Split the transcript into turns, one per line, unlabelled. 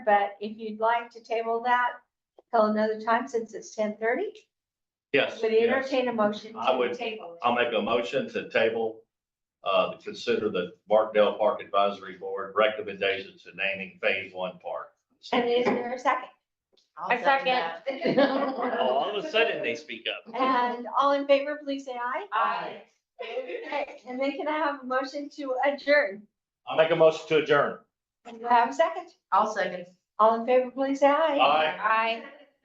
but if you'd like to table that till another time, since it's ten thirty,
Yes,
would
yes.
entertain a motion
I
to
would-
table. it.
I'll make a motion to table, uh, to consider the Markdale Park Advisory Board recommendations to naming Phase One Park.
And is there a second?
I second.
Oh, All of a sudden, they speak up.
And all in favor, please say aye.
Aye.
Okay, And then can I have a motion to adjourn?
I'll make a motion to adjourn.
And do I have a second?
I'll second.
All in favor, please say aye.
Aye.
Aye.